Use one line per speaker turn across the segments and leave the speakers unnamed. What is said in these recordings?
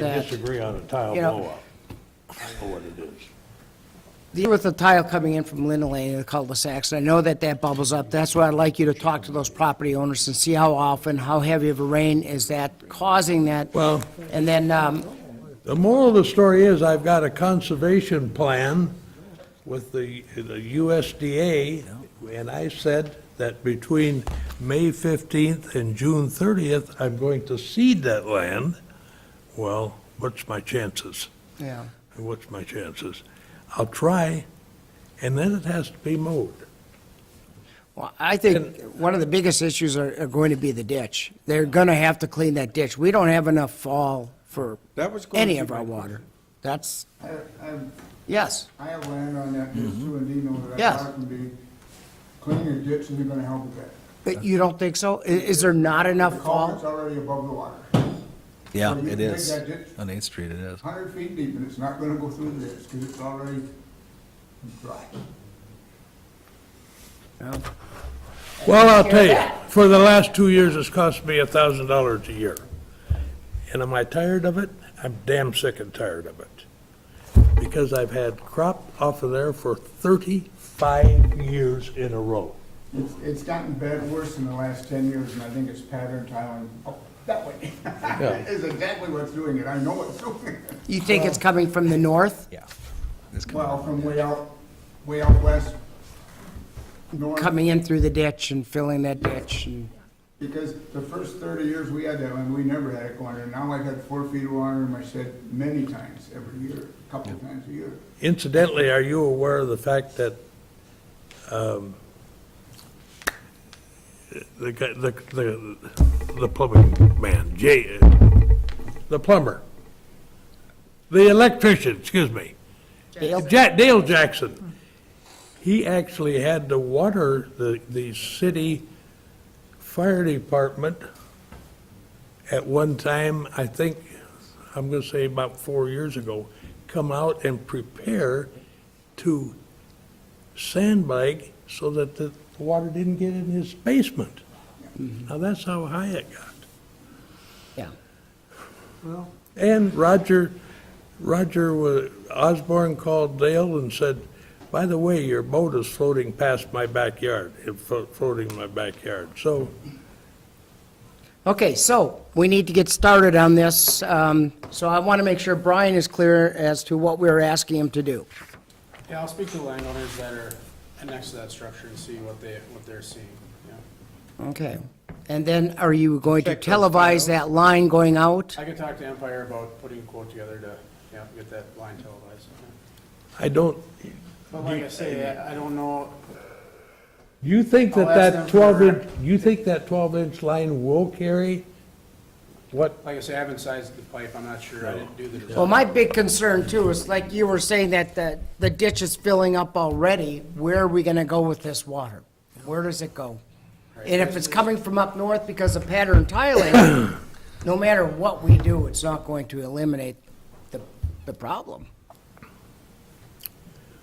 They
that,
disagree on a tile
you know-
blowout. I know what it is.
The- With the tile coming in from Linden Lane and the cul-de-sacs, I know that that bubbles up. That's why I'd like you to talk to those property owners and see how often, how heavy of a rain is that causing that?
Well-
And then, um,
The moral of the story is I've got a conservation plan with the the USDA, and I said that between May 15th and June 30th, I'm going to seed that land. Well, what's my chances?
yeah,
What's my chances? I'll try, and then it has to be mowed.
well, I think one of the biggest issues are, are going to be the ditch. They're gonna have to clean that ditch. We don't have enough fall for
That was going
any
to
of
be
our
my
water. That's,
I I-
yes,
I have land on that, just so and Dino, that I
Yes.
thought would be cleaning your ditch and you're gonna help with that.
but you don't think so? I- is there not
The
enough
culvert's
fall?
already above the water,
Yeah,
So you
it
can dig
is.
that ditch?
On Eighth Street, it is.
hundred feet deep, and it's not gonna go through this, cause it's already dry.
No.
Well, I'll tell you, for the last two years, it's cost me $1,000 a year. And am I tired of it? I'm damn sick and tired of it. Because I've had crop off of there for 35,
Years in a row.
It's, it's gotten bad worse in the last ten years, and I think it's pattern tiling up that way. Is exactly what's doing it, I know it's doing it.
You think it's coming from the north,
Yeah. It's coming.
Well, from way out, way out west, north.
coming in through the ditch and filling that ditch and?
Because the first thirty years we had that one, we never had it going, and now I've had four feet of water in my shed many times every year, a couple of times a year.
Incidentally, are you aware of the fact that um, the, guy- the, the the plumbing man, Jay, the plumber, the electrician, excuse me, Ja- Dale Jackson, he actually had to water the, the city fire department at one time, I think, I'm gonna say about four years ago, come out and prepare to sandbag so that the water didn't get in his basement. Now, that's how high it got.
Yeah.
And Roger, Roger wa- Osborne called Dale and said, by the way, your boat is floating past my backyard, it flo- floating in my backyard. So
Okay, so we need to get started on this. Um, So I want to make sure Brian is clear as to what we're asking him to do.
Yeah, I'll speak to the landowners that are next to that structure and see what they, what they're seeing, yeah.
Okay. And then are you going to
Check those files.
televise that line going out?
I could talk to Empire about putting a quote together to, yeah, get that line televised. yeah.
I don't,
But like I say, I I don't know,
you think that
I'll ask them
that
for-
12-inch, you think that 12-inch line will carry? What,
like I say, I haven't sized the pipe, I'm not sure, I didn't do the design.
Well, my big concern too is like you were saying that the, the ditch is filling up already. Where are we going to go with this water? Where does it go? And if it's coming from up north because of pattern tiling, no matter what we do, it's not going to eliminate the, the problem.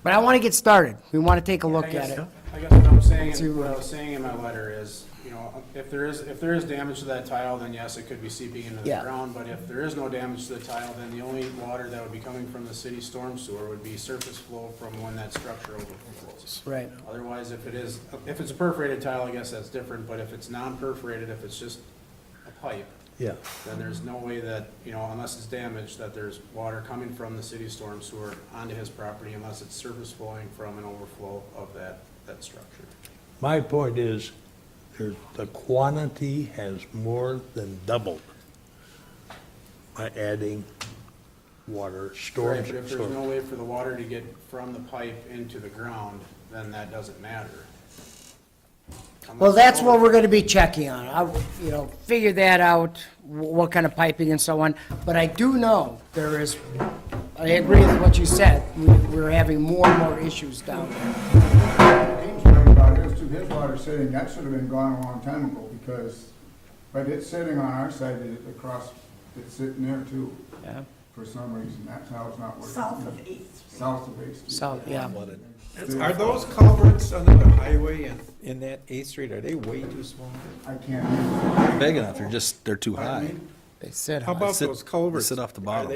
But I want to get started. We want to take a
I
look at
guess-
it.
I guess what I'm saying, what I was saying in my letter is, you know, if there is, if there is damage to that tile, then yes, it could be seeping into the
Yeah.
ground. But if there is no damage to the tile, then the only water that would be coming from the city storm sewer would be surface flow from when that structure overflows.
Right.
Otherwise, if it is, if it's a perforated tile, I guess that's different, but if it's non-perforated, if it's just a pipe,
yeah,
then there's no way that, you know, unless it's damaged, that there's water coming from the city storm sewer onto his property unless it's surface flowing from an overflow of that, that structure.
my point is, there's, the quantity has more than doubled by adding water, storm.
Right, but if there's
storm-
no way for the water to get from the pipe into the ground, then that doesn't matter.
Well,
Unless-
that's what we're gonna be checking on. I, you know, figure that out, wh- what kind of piping and so on. But I do know there is, I agree with what you said, We- we're having more and more issues down there.
Dean's right about his, too, his water sitting, that should have been gone a long time ago, because, but it's sitting on our side, it- across, it's sitting there too, for some reason, that's how it's not working.
South of Eighth Street.
South of Eighth Street.
So, yeah.
Are those culverts under the highway and in that Eighth Street, are they way too small?
I can't,
Big enough, they're just, they're too
I
high.
mean,
They said.
How
on it.
about
Sit-
those culverts?
sit off the
Are
bottom.